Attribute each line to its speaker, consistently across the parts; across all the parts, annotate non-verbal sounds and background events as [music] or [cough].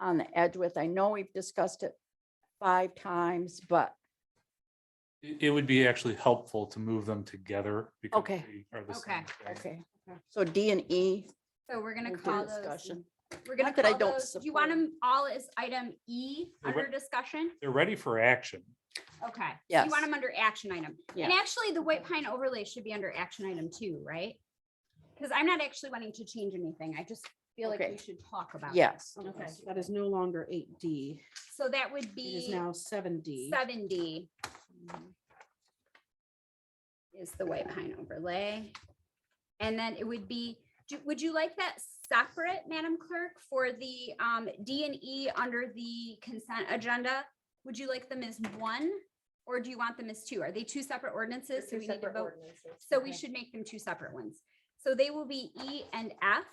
Speaker 1: on the Edgeworth. I know we've discussed it five times, but
Speaker 2: It, it would be actually helpful to move them together. because
Speaker 1: Okay.
Speaker 2: they are the same
Speaker 3: Okay.
Speaker 2: thing.
Speaker 1: okay. So D and E.
Speaker 3: So we're gonna
Speaker 1: we'll do
Speaker 3: call those,
Speaker 1: discussion.
Speaker 3: we're gonna
Speaker 1: Not that I
Speaker 3: call
Speaker 1: don't
Speaker 3: those, you want
Speaker 1: support-
Speaker 3: them all as item E
Speaker 2: They're
Speaker 3: under
Speaker 2: what-
Speaker 3: discussion?
Speaker 2: They're ready for action.
Speaker 3: Okay. so You
Speaker 1: Yes.
Speaker 3: want them under action item. And
Speaker 1: Yeah.
Speaker 3: actually, the White Pine overlay should be under action item two, right? Because I'm not actually wanting to change anything. I just feel like
Speaker 1: Okay.
Speaker 3: we should talk about. it.
Speaker 1: Yes,
Speaker 4: Okay,
Speaker 3: Okay.
Speaker 4: so that is no longer eight D,
Speaker 3: So that would
Speaker 4: it is
Speaker 3: be
Speaker 4: now seven D.
Speaker 3: seventy. Is the White Pine overlay. And then it would be, do- would you like that separate, Madam Clerk, for the um D and E under the consent agenda? Would you like them as one? Or do you want them as two? Are they two separate ordinances? So we need to vote. So we should make them two separate ones. So they will be E and F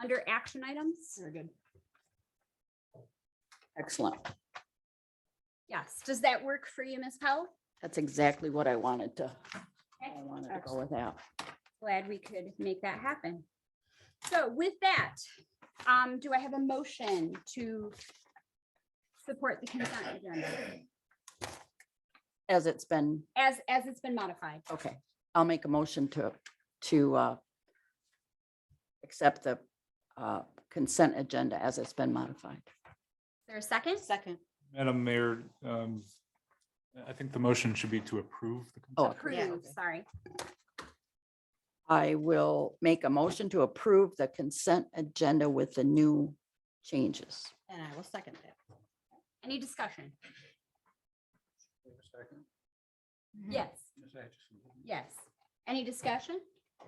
Speaker 3: under action items.
Speaker 4: Very good.
Speaker 1: excellent.
Speaker 3: Yes. Does that work for you, Ms. Powell?
Speaker 1: That's exactly what I wanted to, I wanted to go
Speaker 4: Excellent.
Speaker 1: with that.
Speaker 3: glad we could make that happen. So with that, um, do I have a motion to support the consent agenda
Speaker 1: As it's been,
Speaker 3: as, as it's been modified?
Speaker 1: okay, I'll make a motion to, to uh accept the uh consent agenda as it's been modified.
Speaker 3: Is there a second?
Speaker 4: Second.
Speaker 2: Madam Mayor, um, I think the motion should be to approve. the
Speaker 1: Oh,
Speaker 2: consent.
Speaker 4: Yeah.
Speaker 3: Approve, sorry.
Speaker 1: I will make a motion to approve the consent agenda with the new changes.
Speaker 4: And I will second that.
Speaker 3: Any discussion? Yes, yes. Any discussion?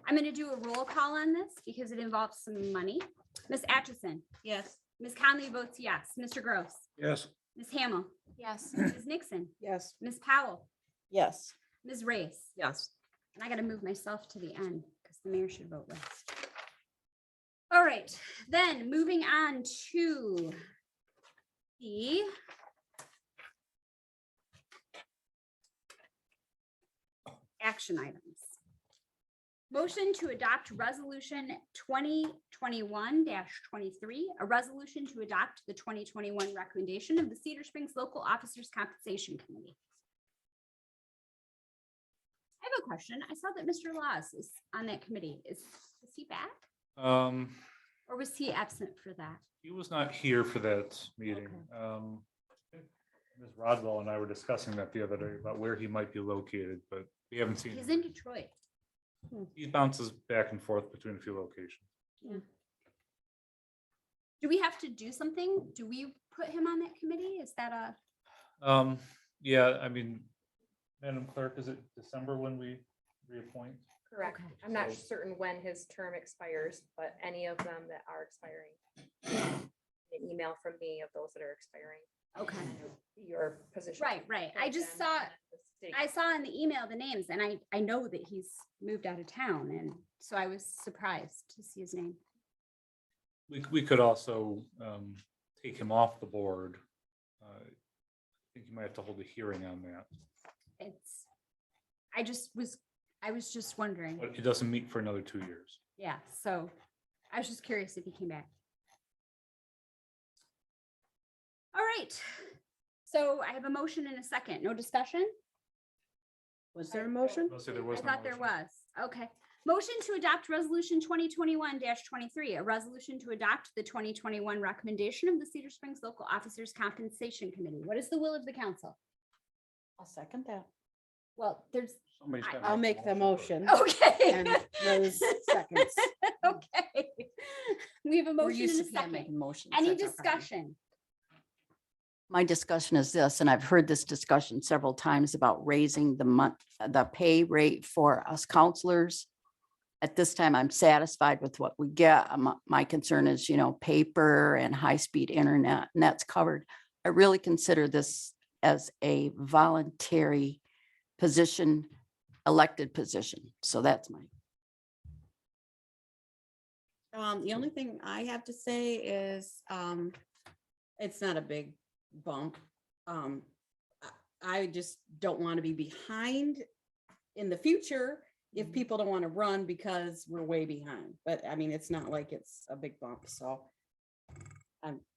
Speaker 3: I'm going to do a roll call on this because it involves some money. Ms. Atchison,
Speaker 4: Yes.
Speaker 3: Ms. Conley votes yes. Mr. Gross,
Speaker 2: Yes.
Speaker 3: Ms. Hamel. Yes. Ms. Nixon,
Speaker 4: Yes.
Speaker 3: Ms. Powell,
Speaker 1: Yes.
Speaker 3: Ms. Race.
Speaker 1: Yes.
Speaker 3: And I gotta move myself to the end because the mayor should vote last. All right, then moving on to the action items. Motion to adopt resolution twenty twenty-one twenty-three, a resolution to adopt the twenty twenty-one recommendation of the Cedar Springs Local Officers Compensation Committee. I have a question. I saw that Mr. Laws is on that committee. Is, is he back
Speaker 2: Um,
Speaker 3: or was he absent for that?
Speaker 2: he was not here for that meeting. Um, Ms. Rodwell and I were discussing that the other day about where he might be located, but we haven't seen.
Speaker 3: He's
Speaker 2: him.
Speaker 3: in Detroit.
Speaker 2: He bounces back and forth between a few locations.
Speaker 3: Do we have to do something? Do we put him on that committee? Is that a,
Speaker 2: Um, yeah, I mean, Madam Clerk, is it December when we reappoint?
Speaker 5: Correct.
Speaker 3: Okay.
Speaker 5: I'm not
Speaker 2: So-
Speaker 5: certain when his term expires, but any of them that are expiring. An email from me of those that are expiring,
Speaker 3: okay.
Speaker 5: your position.
Speaker 3: Right, right. I just saw, I saw in the email the names and I, I know that he's moved out of town and so I was surprised to see his name.
Speaker 2: We, c- we could also, um, take him off the board. Uh, I think you might have to hold a hearing on that,
Speaker 3: It's, I just was, I was just wondering.
Speaker 2: but it doesn't meet for another two years.
Speaker 3: Yeah, so I was just curious if he came back. All right, so I have a motion and a second. No discussion?
Speaker 4: Was there a motion?
Speaker 2: Let's say there
Speaker 3: I
Speaker 2: was. no
Speaker 3: thought there
Speaker 2: motion.
Speaker 3: was. Okay. Motion to adopt resolution twenty twenty-one twenty-three, a resolution to adopt the twenty twenty-one recommendation of the Cedar Springs Local Officers Compensation Committee. What is the will of the council?
Speaker 4: I'll second that.
Speaker 3: Well, there's,
Speaker 2: Somebody's
Speaker 3: I-
Speaker 2: gotta
Speaker 4: I'll make the
Speaker 2: first.
Speaker 4: motion.
Speaker 3: okay.
Speaker 4: And [laughs]
Speaker 3: [laughs]
Speaker 4: Rose seconds.
Speaker 3: Okay. We have a
Speaker 1: We're
Speaker 3: motion
Speaker 1: used
Speaker 3: and a
Speaker 1: to Pam
Speaker 3: second.
Speaker 1: making motions.
Speaker 3: Any
Speaker 1: that's our problem.
Speaker 3: discussion?
Speaker 1: My discussion is this, and I've heard this discussion several times about raising the month, the pay rate for us counselors. At this time, I'm satisfied with what we get. Um, My concern is, you know, paper and high-speed internet, and that's covered. I really consider this as a voluntary position, elected position. So that's my
Speaker 4: Um, the only thing I have to say is, um, it's not a big bump. Um, I- I just don't want to be behind in the future if people don't want to run because we're way behind. But I mean, it's not like it's a big bump, so I'm,